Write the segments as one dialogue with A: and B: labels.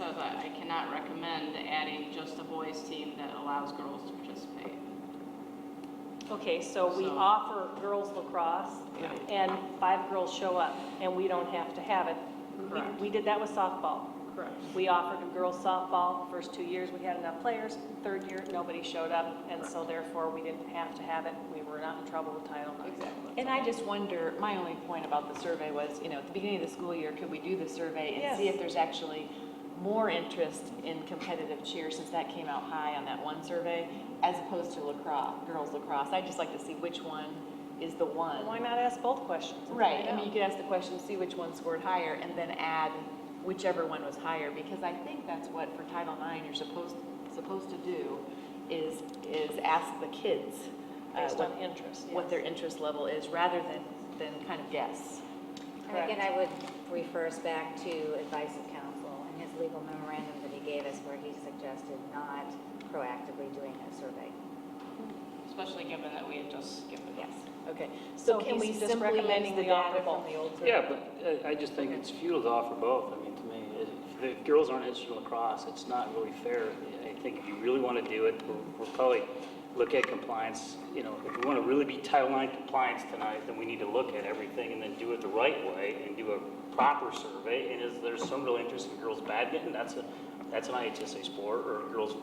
A: but I cannot recommend adding just a boys' team that allows girls to participate.
B: Okay, so we
A: So-
B: offer girls lacrosse,
A: Right.
B: and five girls show up, and we don't have to have it. We-
A: Correct.
B: We did that with softball.
A: Correct.
B: We offered a girls softball, first two years, we had enough players, third year, nobody showed up, and so therefore, we didn't have to have it, we were not in trouble with Title IX.
A: Exactly.
C: And I just wonder, my only point about the survey was, you know, at the beginning of the school year, could we do the survey and see
B: Yes.
C: if there's actually more interest in competitive cheer, since that came out high on that one survey, as opposed to lacrosse, girls lacrosse? I'd just like to see which one is the one.
B: Why not ask both questions? and
C: Right,
B: find
C: I mean,
B: out?
C: you could ask the question, see which one scored higher, and then add whichever one was higher, because I think that's what for Title IX you're supposed, supposed to do, is, is ask the kids. uh,
B: Based
C: what-
B: on interest,
C: What
B: yes.
C: their interest level is, rather than, than kind of guess.
D: And again, I would refer us back to advice of counsel and his legal memorandum that he gave us where he suggested not proactively doing a survey.
A: Especially given that we had just skipped it.
D: Yes.
C: Okay,
B: So
C: so can we
B: he's just
C: simply use
B: recommending
C: the
B: we offer
C: data from
B: both.
C: the old survey?
E: Yeah, but uh, I- I just think it's futile to offer both. I mean, to me, if the girls aren't interested in lacrosse, it's not really fair. I think if you really want to do it, we'll- we'll probably look at compliance, you know, if we want to really be Title IX compliance tonight, then we need to look at everything and then do it the right way and do a proper survey. And is there some real interest in girls badminton? That's a, that's an IHSA sport, or girls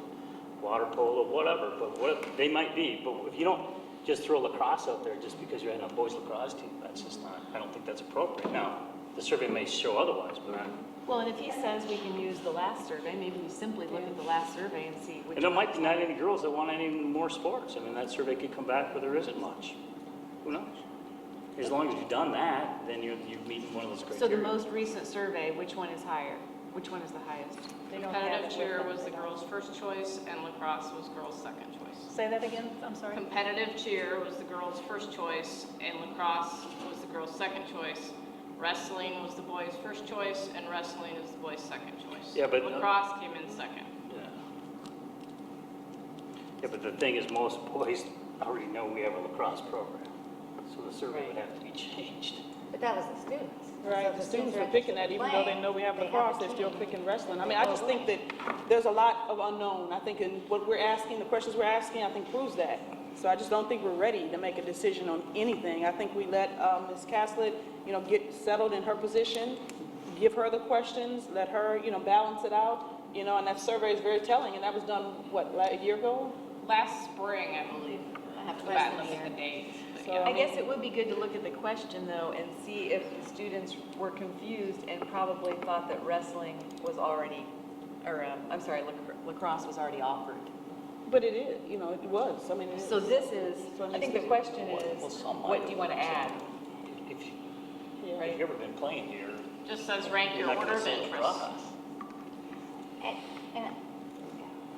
E: water polo, whatever, but what, they might be. But if you don't, just throw lacrosse out there just because you're in a boys lacrosse team. That's just not, I don't think that's appropriate. Now, the survey may show otherwise, but I,
C: Well, and if he says we can use the last survey, maybe we simply look at the last survey and see which.
E: and there
C: one
E: might
C: was
E: be not
C: higher.
E: any girls that want any more sports. I mean, that survey could come back where there isn't much. Who knows? As long as you've done that, then you're, you're meeting one of those criteria.
C: So the most recent survey, which one is higher? Which one is the highest?
B: They don't have
A: Competitive
B: it with
A: cheer
B: them,
A: was
B: they
A: the
B: don't.
A: girls' first choice, and lacrosse was girls' second choice.
B: Say that again, I'm sorry.
A: Competitive cheer was the girls' first choice, and lacrosse was the girls' second choice. Wrestling was the boys' first choice, and wrestling is the boys' second choice.
E: Yeah, but, uh,
A: Lacrosse came in second.
E: Yeah, Yeah, but the thing is, most boys already know we have a lacrosse program, so the survey would have to be changed.
D: But that was the students. So
F: Right,
D: if
F: the students
D: are
F: are picking that,
D: interested in
F: even though they
D: playing,
F: know we have
D: they
F: lacrosse,
D: a
F: they're still
D: team.
F: picking wrestling. I mean, I just think that there's a lot of unknown. I think in what we're asking, the questions we're asking, I think proves that. So I just don't think we're ready to make a decision on anything. I think we let uh, Ms. Caslet, you know, get settled in her position, give her the questions, let her, you know, balance it out, you know, and that survey is very telling, and that was done, what, la- a year ago?
A: Last spring, I believe. I have to go back and look at the dates. but
F: So,
A: yeah.
C: I guess it would be good to look at the question though and see if the students were confused and probably thought that wrestling was already, or, um, I'm sorry, lac- lacrosse was already offered.
F: But it is, you know, it was, I mean, it is.
C: So this is,
F: So it
C: I think the
F: needs to be-
C: question
E: Well,
C: is,
E: some
C: what do you want to
E: might have
C: add?
E: If if
F: Yeah.
E: you've ever been playing here,
A: Just says rank
E: you're
A: your
E: not
A: order
E: going to
A: of
E: say
A: interest.
E: lacrosse.
D: And, and,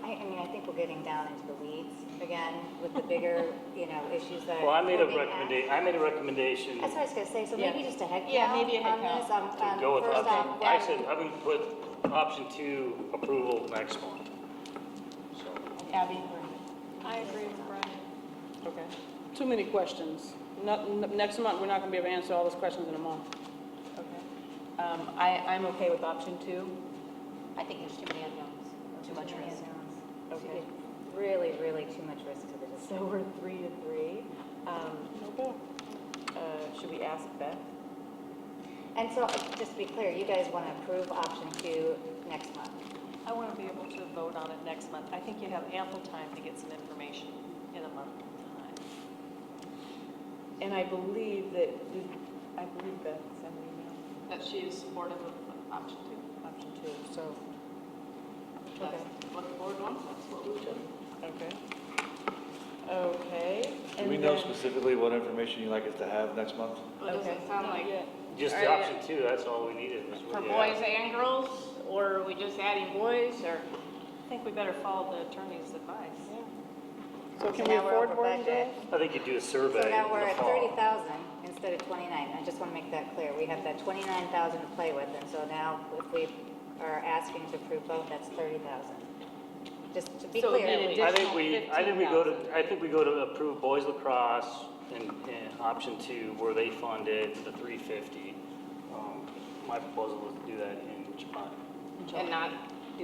D: I, I mean, I think we're getting down into the weeds again with the bigger, you know, issues that.
E: Well, I made a
D: are being asked.
E: recommendation, I made a recommendation
D: That's what I was gonna say, so
C: Yeah.
D: maybe just a head count.
C: Yeah, maybe a head
D: on this, on-
E: to
D: on
E: go with
D: um, first
E: option,
D: off,
E: I
D: what-
E: said, I'm going to put option two approval next month. So,
C: Abby?
B: I agree with Brian.
F: Okay. Too many questions. Not, n- next month, we're not gonna be able to answer all those questions in a month.
C: Okay. Um, I, I'm okay with option two.
D: I think there's too many unknowns.
C: Too much
D: many
C: risk.
D: unknowns. Too
C: Okay.
D: big- Really, really too much risk to the
C: So
D: district.
C: we're three to three. Um,
F: Okay.
C: uh, should we ask Beth?
D: And so, uh, just to be clear, you guys want to approve option two next month?
B: I want to be able to vote on it next month. I think you have ample time to get some information in a month time.
C: And I believe that, I believe Beth sent an email,
A: That she is supportive of option two.
C: option two, so.
A: If That's what the board wants, that's what we do.
C: Okay. Okay.
G: Do we know specifically what information you'd like us to have next month?
A: It doesn't
C: Okay.
A: sound like
E: Just the option two, that's all we needed was
A: for
E: what you
A: boys
E: asked.
A: and girls, or are we just adding boys, or?
B: I think we better follow the attorney's advice.
F: So can
D: So
F: we
D: now we're
F: afford
D: over
F: boarding
D: budget.
F: girls?
E: I think you do a survey
D: So
E: in the
D: now we're at thirty
E: fall.
D: thousand instead of twenty-nine, I just want to make that clear, we have that twenty-nine thousand to play with, and so now if we are asking to approve both, that's thirty thousand. Just to be
C: So
D: clear.
C: then it
E: I think we,
C: additional
E: I think we go to, I think we go to approve boys lacrosse and, and option two where they funded the Um, three fifty. My proposal was to do that in July.
A: And not